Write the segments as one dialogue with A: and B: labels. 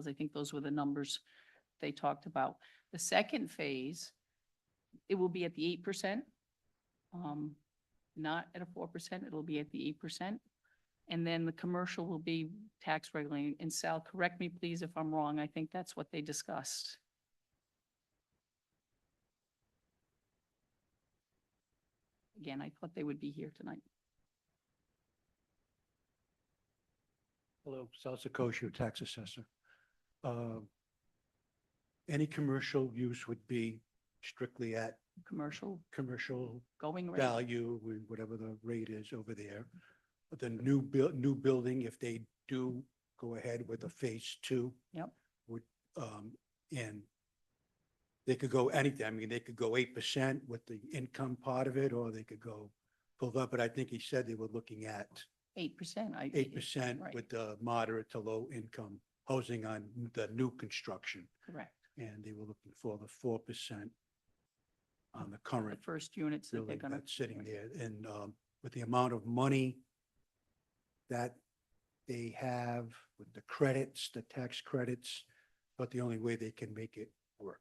A: 'cause I think those were the numbers they talked about. The second phase, it will be at the eight percent. Um, not at a four percent, it'll be at the eight percent. And then the commercial will be tax regulating. And Sal, correct me please if I'm wrong, I think that's what they discussed. Again, I thought they would be here tonight.
B: Hello, Sal Sakosha, Tax Assessor. Uh, Any commercial use would be strictly at
A: Commercial
B: commercial
A: going rate.
B: value, wh- whatever the rate is over there. The new buil, new building, if they do go ahead with a phase two.
A: Yep.
B: Would, um, and they could go anything. I mean, they could go eight percent with the income part of it, or they could go pulled up, but I think he said they were looking at
A: Eight percent.
B: eight percent
A: right.
B: with the moderate to low income housing on the new construction.
A: Correct.
B: And they were looking for the four percent on the
A: The
B: current
A: first units that they're
B: building
A: gonna.
B: that's sitting there. And um, with the amount of money that they have, with the credits, the tax credits, but the only way they can make it work.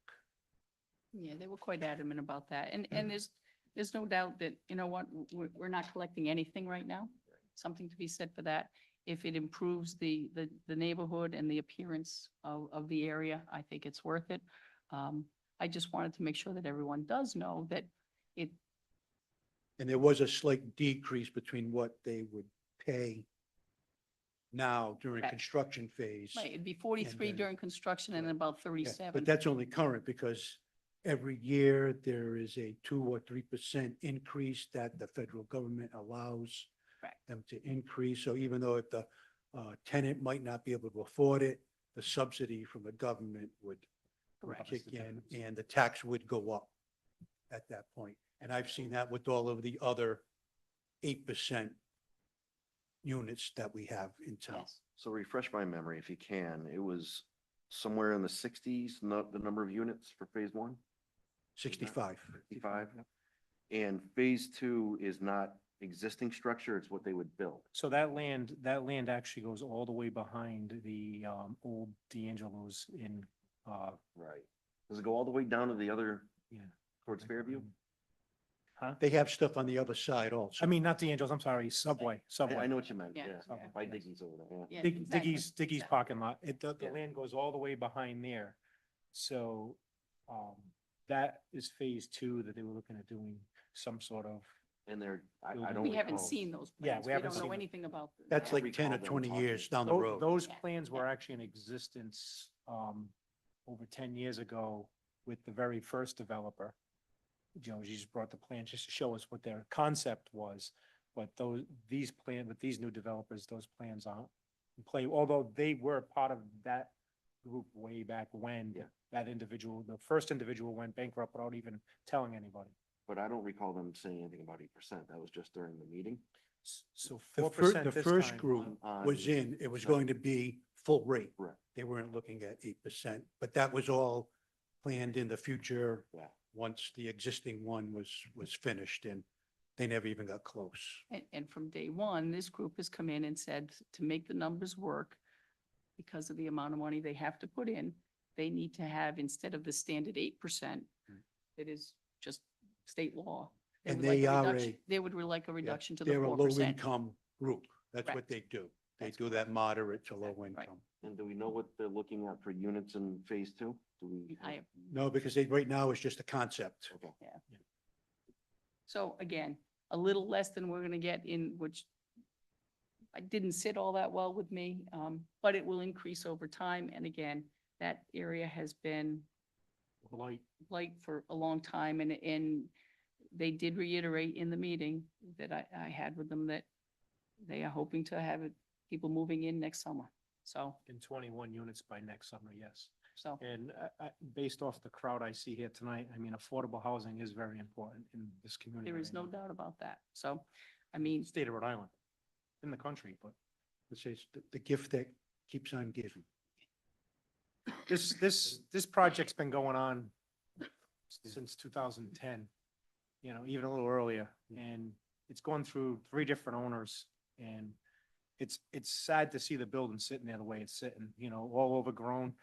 A: Yeah, they were quite adamant about that. And,
B: Mm.
A: and there's, there's no doubt that, you know what, we're, we're not collecting anything right now. Something to be said for that. If it improves the, the, the neighborhood and the appearance of, of the area, I think it's worth it. Um, I just wanted to make sure that everyone does know that it,
B: And there was a slight decrease between what they would pay now during
A: Correct.
B: construction phase.
A: right, it'd be forty-three
B: then-
A: during construction and then about
B: Yeah, But
A: thirty-seven.
B: that's only current because every year there is a two or three percent increase that the federal government allows
A: Correct.
B: them to increase. So even though if the uh, tenant might not be able to afford it, the subsidy from the government would would
A: Correct.
B: kick in and the tax would go up at that point. And I've seen that with all of the other eight percent units that we have in town.
A: Yes.
C: So refresh my memory if you can. It was somewhere in the sixties, not the number of units for phase one,
B: Sixty-five.
C: fifty-five? And phase two is not existing structure, it's what they would build.
D: So that land, that land actually goes all the way behind the um old D'Angelo's in uh.
C: Right. Does it go all the way down to the other?
D: Yeah.
C: Towards
D: Mm-hmm.
C: Fairview?
D: Huh?
B: They have stuff on the other side also.
D: I mean, not D'Angelo's, I'm sorry, Subway,
C: I, I
D: Subway.
C: know what you meant,
A: Yeah,
C: yeah.
A: yeah.
C: By Diggy's over there, yeah.
A: Yeah,
D: Dig-
A: exactly.
D: Diggy's, Diggy's
A: Yeah.
D: parking lot. It, the, the
C: Yeah.
D: land goes all the way behind there. So um that is phase two that they were looking at doing some sort of,
C: And they're, I, I
D: We
C: don't.
A: We haven't
C: recall.
A: seen those
D: Yeah,
A: plans.
D: we
A: We
D: haven't
A: don't know
D: seen-
A: anything about. them.
B: That's
C: I
B: like ten or
C: recall them
B: twenty
C: talking.
B: years down the
D: Tho-
B: road.
D: those
A: Yeah,
D: plans were
A: yeah.
D: actually in existence um over ten years ago with the very first developer. You know, she just brought the plan just to show us what their concept was, but those, these plan, with these new developers, those plans aren't in play, although they were part of that group way back when
C: Yeah.
D: that individual, the first individual went bankrupt without even telling anybody.
C: But I don't recall them saying anything about eight percent. That was just during the meeting. Uh,
D: S- So
B: The
D: four
B: first,
D: percent
B: the
D: this
B: first
D: time.
B: group
C: on-
B: was in, it was
C: Right.
B: going to be full rate.
C: Correct.
B: They weren't looking at eight percent, but that was all planned in the future.
C: Yeah.
B: Once the existing one was, was finished and they never even got close.
A: And, and from day one, this group has come in and said, to make the numbers work, because of the amount of money they have to put in, they need to have, instead of the standard eight percent,
B: Mm.
A: it is just state law.
B: And
A: would like
B: they
A: a
B: are
A: reduction-
B: a-
A: They would like a reduction to the
B: They're a
A: four
B: low
A: percent.
B: income group. That's
A: Correct.
B: what they do. They
A: That's
B: do that moderate to low
A: Exactly right.
B: income.
C: And do we know what they're looking at for units in phase two? Do we?
A: I have
B: No, because they, right now it's just a concept.
C: Okay.
A: So again, a little less than we're gonna get in, which I didn't sit all that well with me, um, but it will increase over time. And again, that area has been
D: Blight.
A: like for a long time and, and they did reiterate in the meeting that I, I had with them that they are hoping to have it- people moving in next summer. So,
D: in twenty-one units by next summer, yes.
A: so,
D: And I, I, based off the crowd I see here tonight, I mean, affordable housing is very important in this community.
A: there is
D: right
A: no
D: now.
A: doubt about that. So, I mean,
D: State of Rhode Island, in the country, but
B: It's just the- the gift that keeps on giving.
D: this, this, this project's been going on since two thousand and ten, you know, even a little earlier, and it's gone through three different owners, and it's, it's sad to see the building sitting there the way it's sitting, you know, all overgrown.